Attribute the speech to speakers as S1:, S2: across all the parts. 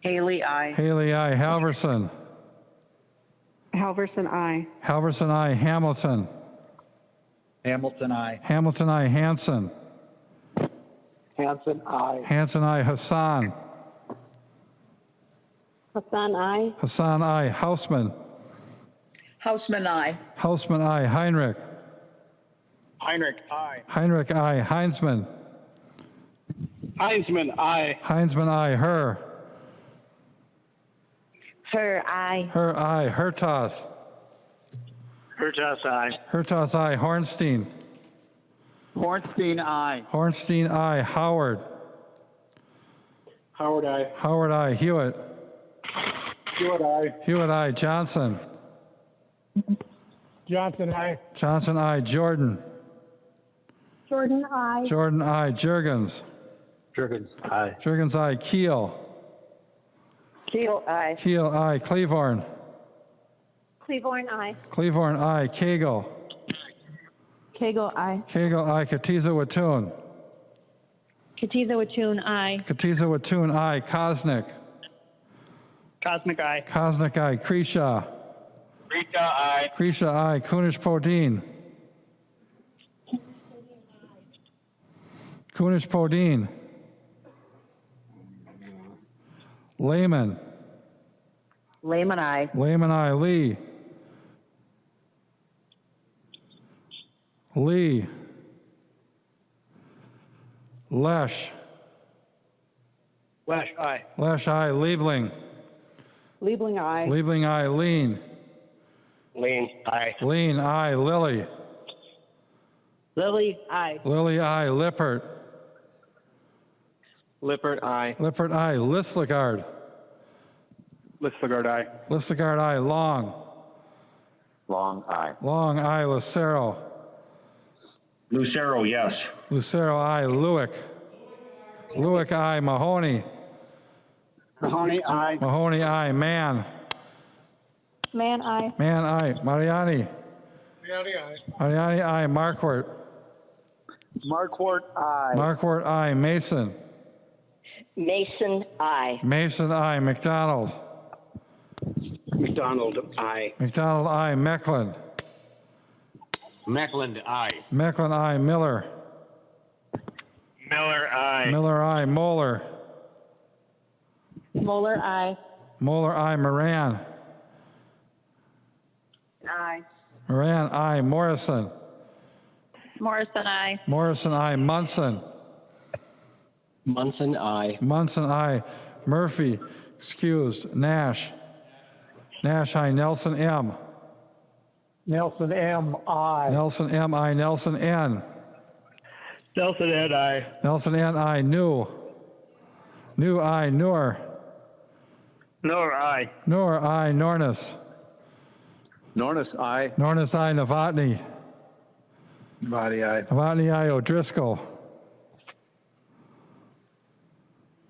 S1: Haley, I.
S2: Haley, I. Halverson.
S3: Halverson, I.
S2: Halverson, I. Hamilton.
S4: Hamilton, I.
S2: Hamilton, I. Hanson.
S4: Hanson, I.
S2: Hanson, I. Hassan.
S5: Hassan, I.
S2: Hassan, I. Hausman.
S6: Houseman, I.
S2: Hausman, I. Heinrich.
S4: Heinrich, I.
S2: Heinrich, I. Heinzman.
S4: Heisman, I.
S2: Heinzman, I. Her.
S5: Her, I.
S2: Her, I. Hertas.
S4: Hurtas, I.
S2: Hertas, I. Hornstein.
S4: Hornstein, I.
S2: Hornstein, I. Howard.
S4: Howard, I.
S2: Howard, I. Hewitt.
S4: Stewart, I.
S2: Hewitt, I. Johnson.
S4: Johnson, I.
S2: Johnson, I. Jordan.
S5: Jordan, I.
S2: Jordan, I. Jurgens.
S4: Jurgens, I.
S2: Jurgens, I. Keel.
S1: Keel, I.
S2: Keel, I. Cleavorn.
S5: Cleaborn, I.
S2: Cleavorn, I. Cagle.
S5: Kegel, I.
S2: Cagle, I. Katiza Watun.
S5: Katiza Watun, I.
S2: Katiza Watun, I. Kosnick.
S4: Cosmic, I.
S2: Kosnick, I. Kreshaw.
S4: Rika, I.
S2: Kresha, I. Kunish Podine. Kunish Podine. Lehman.
S1: Lehman, I.
S2: Lehman, I. Lee. Lee. Lesh.
S4: Wesh, I.
S2: Lesh, I. Liebling.
S3: Liebling, I.
S2: Liebling, I. Lean.
S4: Lean, I.
S2: Lean, I. Lily.
S1: Lily, I.
S2: Lily, I. Lippert.
S4: Lippert, I.
S2: Lippert, I. Listlegard.
S4: Listagard, I.
S2: Listagard, I. Long.
S7: Long, aye.
S2: Long, I. Lucero.
S7: Lucero, yes.
S2: Lucero, I. Lewick. Lewick, I. Mahoney.
S4: Mahoney, I.
S2: Mahoney, I. Man.
S5: Man, I.
S2: Man, I. Mariani. Mariani, I. Markwart.
S4: Markwart, I.
S2: Markwart, I. Mason.
S1: Mason, I.
S2: Mason, I. McDonald.
S4: McDonald, I.
S2: McDonald, I. Mecklen.
S4: Meckland, I.
S2: Mecklen, I. Miller.
S4: Miller, I.
S2: Miller, I. Moeller.
S5: Moeller, I.
S2: Moeller, I. Moran.
S1: I.
S2: Moran, I. Morrison.
S5: Morrison, I.
S2: Morrison, I. Munson.
S4: Munson, I.
S2: Munson, I. Murphy, excused. Nash. Nash, I. Nelson, M.
S4: Nelson, M, I.
S2: Nelson, M. I. Nelson, N.
S4: Nelson, N, I.
S2: Nelson, N. I. New. New, I. Noor.
S4: Nor, I.
S2: Noor, I. Nornis.
S4: Nornis, I.
S2: Nornis, I. Novotny.
S4: Body, I.
S2: Novotny, I. O'Driscoll.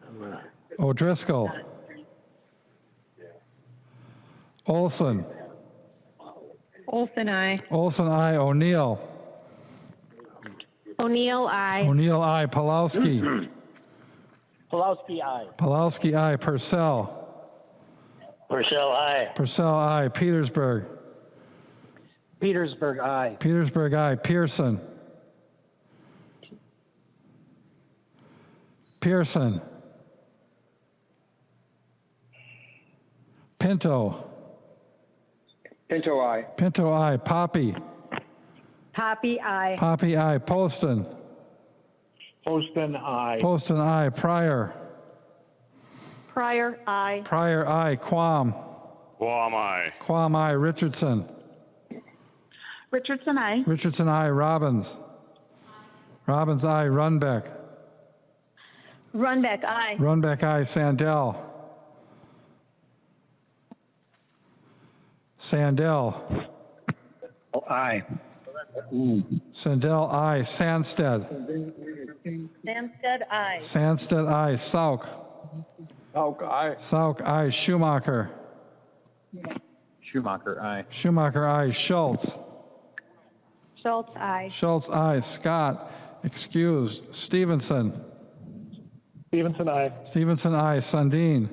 S2: Oh, O'Driscoll. Olson.
S5: Olson, I.
S2: Olson, I. O'Neill.
S5: O'Neill, I.
S2: O'Neill, I. Palowski.
S4: Pulowski, I.
S2: Palowski, I. Purcell.
S4: Purcell, I.
S2: Purcell, I. Petersburg.
S4: Petersburg, I.
S2: Petersburg, I. Pearson. Pearson. Pinto.
S4: Pinto, I.
S2: Pinto, I. Poppy.
S5: Poppy, I.
S2: Poppy, I. Poston.
S4: Poston, I.
S2: Poston, I. Pryor.
S5: Pryor, I.
S2: Pryor, I. Quam.
S8: Quam I.
S2: Quam, I. Richardson.
S5: Richardson, I.
S2: Richardson, I. Robbins. Robbins, I. Runbeck.
S5: Runbeck, I.
S2: Runbeck, I. Sandell. Sandell.
S4: I.
S2: Sandell, I. Sandsted.
S5: Samstead, I.
S2: Sandsted, I. Sauk.
S4: Hauk, I.
S2: Sauk, I. Schumacher.
S4: Schumacher, I.
S2: Schumacher, I. Schultz.
S5: Schultz, I.
S2: Schultz, I. Scott. Excused. Stevenson.
S4: Stevenson, I.
S2: Stevenson, I. Sundin.